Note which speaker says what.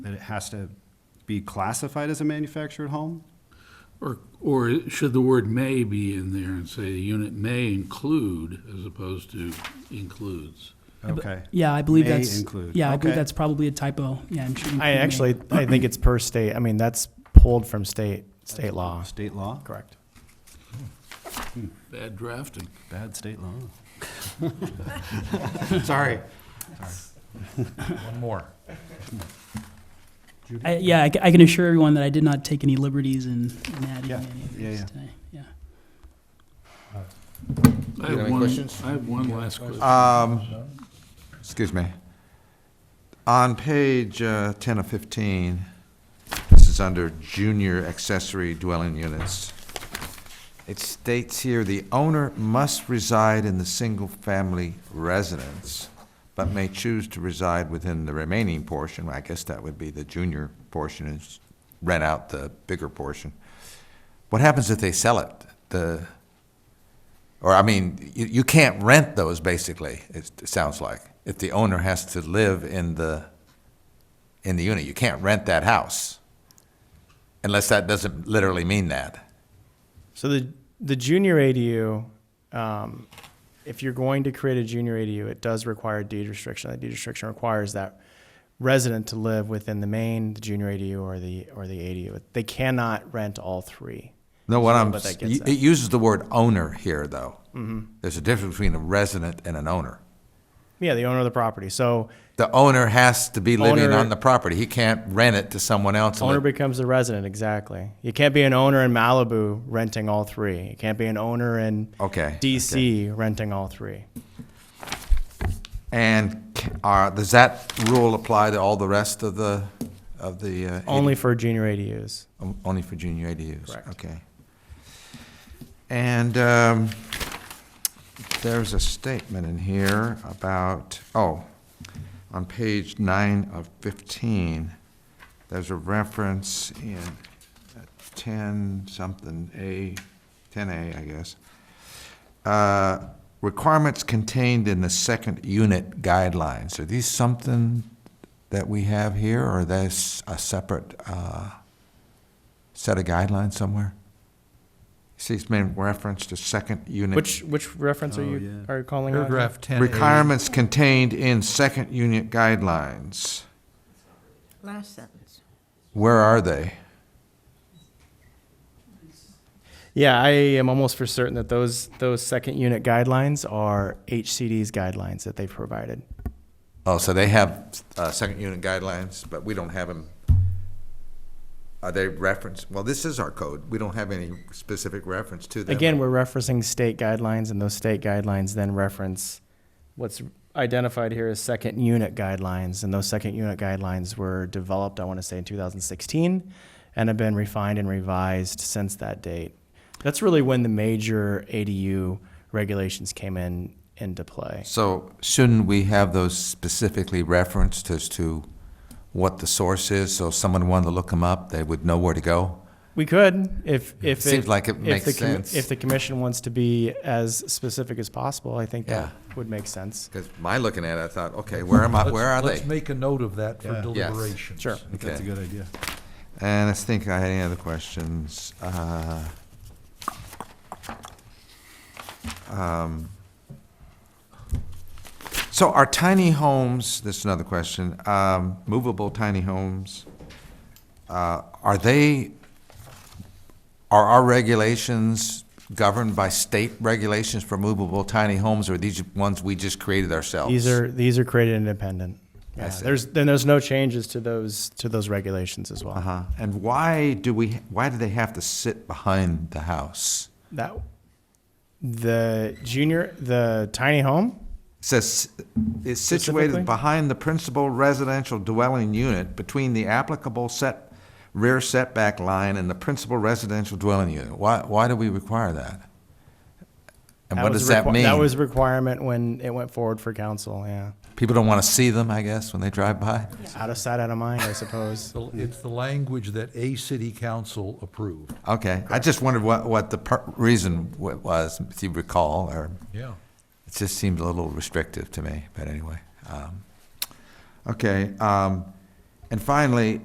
Speaker 1: that it has to be classified as a manufactured home?
Speaker 2: Or, or should the word may be in there and say the unit may include as opposed to includes?
Speaker 1: Okay.
Speaker 3: Yeah, I believe
Speaker 1: May
Speaker 3: that's.
Speaker 1: include.
Speaker 3: Yeah, I believe
Speaker 1: Okay.
Speaker 3: that's probably a typo. Yeah, I'm sure. you
Speaker 4: I
Speaker 3: can-
Speaker 4: actually, I think it's per state. I mean, that's pulled from state, state law.
Speaker 1: Uh, State law?
Speaker 4: Correct.
Speaker 2: Bad drafting.
Speaker 1: Bad state law.
Speaker 4: Sorry.
Speaker 5: One more.
Speaker 3: I- Yeah, I ca- I can assure everyone that I did not take any liberties in in adding
Speaker 1: Yeah,
Speaker 3: any of
Speaker 1: yeah, yeah.
Speaker 3: these today. Yeah.
Speaker 2: I
Speaker 5: You got
Speaker 2: have
Speaker 5: any
Speaker 2: one-
Speaker 5: questions?
Speaker 2: I have one last question.
Speaker 5: Excuse me. On page uh, 10 of 15, this is under junior accessory dwelling units. It states here, "The owner must reside in the single-family residence, but may choose to reside within the remaining portion." I guess that would be the junior portion, is rent out the bigger portion. What happens if they sell it? The, or, I mean, you, you can't rent those, basically, it it sounds like, if the owner has to live in the, in the unit. You can't rent that house, unless that doesn't literally mean that.
Speaker 4: So the, the junior ADU, um, if you're going to create a junior ADU, it does require a deed restriction. That deed restriction requires that resident to live within the main, the junior ADU or the, or the ADU. They cannot rent all three.
Speaker 5: No, what
Speaker 4: So,
Speaker 5: I'm,
Speaker 4: but that gets Mm-hmm.
Speaker 5: it
Speaker 4: that.
Speaker 5: uses the word owner here, though. There's a difference between a resident and an owner.
Speaker 4: Yeah, the owner of the property. So
Speaker 5: The owner has to be living
Speaker 4: Owner-
Speaker 5: on the property. He can't rent it to someone else. and
Speaker 4: Owner
Speaker 5: let-
Speaker 4: becomes the resident, exactly. You can't be an owner in Malibu renting all three. You can't be an owner in
Speaker 5: Okay,
Speaker 4: DC renting all three.
Speaker 5: And c- are, does that rule apply to all the rest of the, of the? uh,
Speaker 4: Only for junior ADUs.
Speaker 5: O- Um, Only for junior ADUs?
Speaker 4: Correct.
Speaker 5: Okay. And um, there's a statement in here about, oh, on page nine of 15, there's a reference in 10 something, A, 10A, I guess. Uh, Requirements contained in the second unit guidelines. Are these something that we have here, or that's a separate? uh, set a guideline somewhere? See, it's made reference to second unit.
Speaker 4: Which which reference are
Speaker 1: Oh,
Speaker 4: you
Speaker 1: yeah.
Speaker 4: are you calling out?
Speaker 5: Paragraph Requirements contained in second unit guidelines.
Speaker 6: Last sentence.
Speaker 5: Where are they?
Speaker 4: Yeah, I am almost for certain that those those second unit guidelines are HCD's guidelines that they provided.
Speaker 5: Oh, so they have, uh, second unit guidelines, but we don't have them. Are they referenced? Well, this is our code. We don't have any specific reference to them.
Speaker 4: Again, we're referencing state guidelines and those state guidelines then reference what's identified here as second unit guidelines and those second unit guidelines were developed, I want to say in 2016 and have been refined and revised since that date. That's really when the major ADU regulations came in into play.
Speaker 5: So shouldn't we have those specifically referenced as to what the source is? So if someone wanted to look them up, they would know where to go?
Speaker 4: We could if if it,
Speaker 5: Seems like it
Speaker 4: if
Speaker 5: makes
Speaker 4: the com-
Speaker 5: sense.
Speaker 4: If the commission wants to be as specific as possible, I think that would make sense.
Speaker 5: Because my looking at it, I thought, okay, where am I,
Speaker 7: Let's-
Speaker 5: where are
Speaker 7: Let's
Speaker 5: they?
Speaker 7: make a note of that for
Speaker 1: Yeah.
Speaker 5: Yes.
Speaker 7: deliberations.
Speaker 4: Sure.
Speaker 1: I think that's a
Speaker 5: Okay.
Speaker 1: good idea.
Speaker 5: And I think I had any other questions. Uh, um, So are tiny homes, this is another question, um, movable tiny homes, uh, are they, are our regulations governed by state regulations for movable tiny homes, or are these ones we just created ourselves?
Speaker 4: These are these are created independent.
Speaker 5: Oh, I
Speaker 4: Yeah,
Speaker 5: see.
Speaker 4: there's then there's no changes to those to those regulations as well.
Speaker 5: Uh-huh. And why do we, why do they have to sit behind the house?
Speaker 4: That the junior the tiny home.
Speaker 5: It says, is
Speaker 4: Specifically?
Speaker 5: situated behind the principal residential dwelling unit between the applicable set, rear setback line and the principal residential dwelling unit. Why, why do we require that? And what
Speaker 4: was
Speaker 5: does
Speaker 4: a
Speaker 5: that
Speaker 4: requi- That was
Speaker 5: mean?
Speaker 4: a requirement when it went forward for council. Yeah,
Speaker 5: People don't want to see them, I guess, when they drive by?
Speaker 4: out of sight, out of mind, I suppose.
Speaker 7: So It's the language that a city council approved.
Speaker 5: Okay, I just wondered what, what the per- reason wa- was, if you recall, or
Speaker 7: Yeah.
Speaker 5: It just seemed a little restrictive to me, but anyway. Um, okay, um, And finally,